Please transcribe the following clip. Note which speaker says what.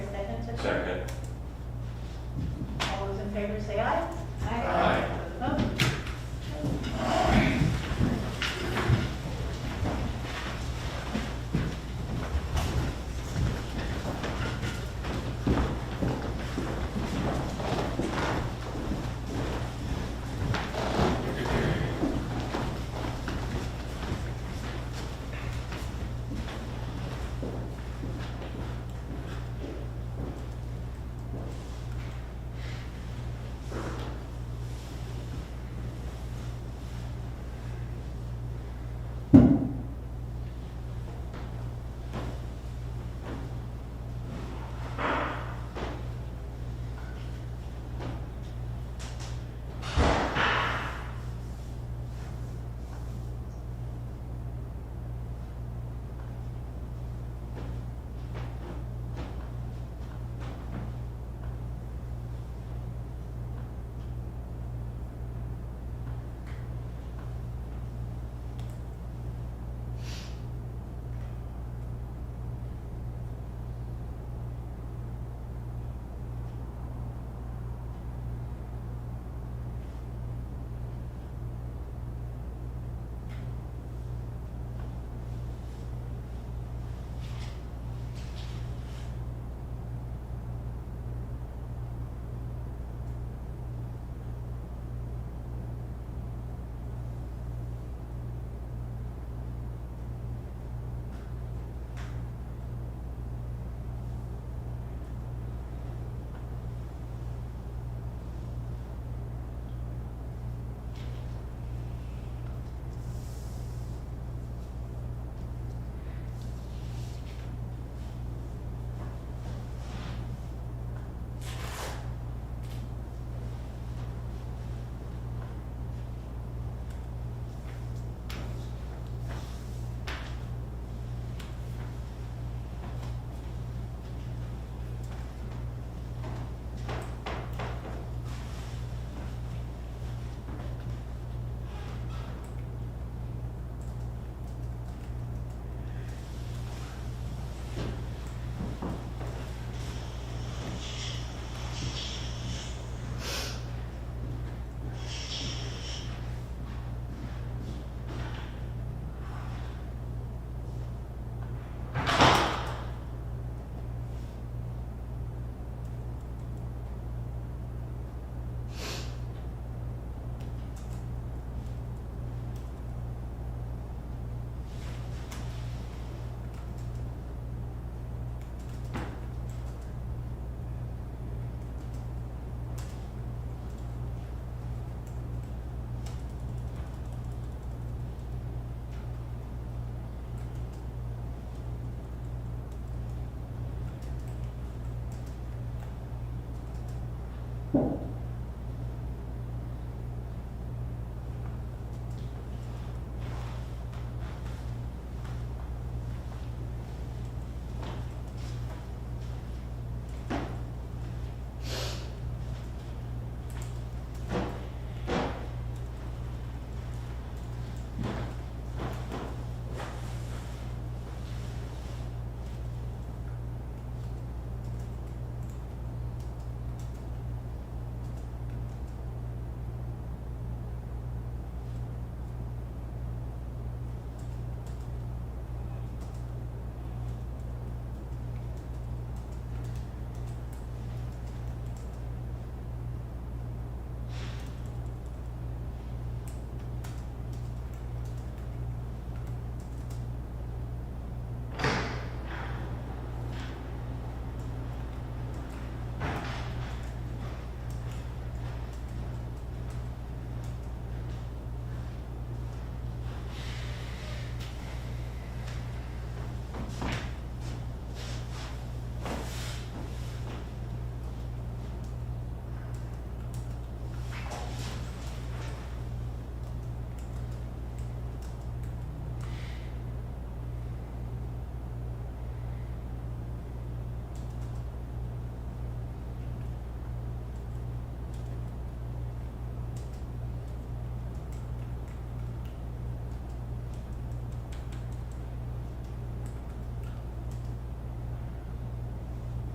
Speaker 1: All